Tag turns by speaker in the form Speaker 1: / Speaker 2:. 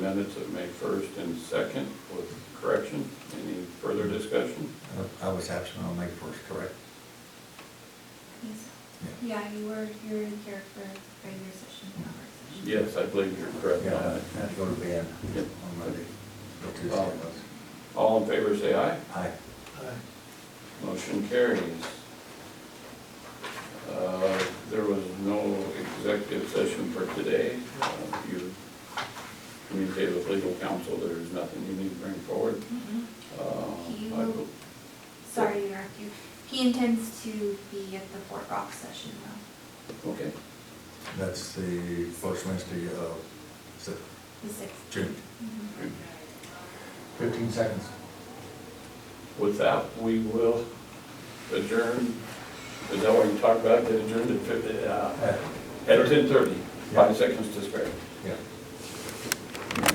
Speaker 1: Minutes of May 1st and 2nd with correction. Any further discussion?
Speaker 2: I was absent on May first, correct?
Speaker 3: Yes. Yeah, you were, you were here for regular session, not work session.
Speaker 1: Yes, I believe you're correct
Speaker 2: Yeah,
Speaker 1: on
Speaker 2: I
Speaker 1: that.
Speaker 2: had to go to bed
Speaker 1: Yep.
Speaker 2: on Monday, or Tuesday it was.
Speaker 1: All in favor, say aye.
Speaker 2: Aye.
Speaker 1: Motion carries. Uh, There was no executive session for today. Uh, You communicated with legal counsel, there is nothing you need to bring forward.
Speaker 3: Mhm.
Speaker 1: Uh,
Speaker 3: He
Speaker 1: I-
Speaker 3: will- Sorry to interrupt you. He intends to be at the Fort Rock session though,
Speaker 1: Okay,
Speaker 2: That's the first Wednesday of Se-
Speaker 3: the sixth.
Speaker 2: June.
Speaker 3: Mhm.
Speaker 2: Fifteen seconds.
Speaker 1: with that, we will adjourn. Is that what you talked about, get adjourned at fif- uh,
Speaker 2: Uh,
Speaker 1: At ten thirty,
Speaker 2: Yeah.
Speaker 1: five seconds to spare.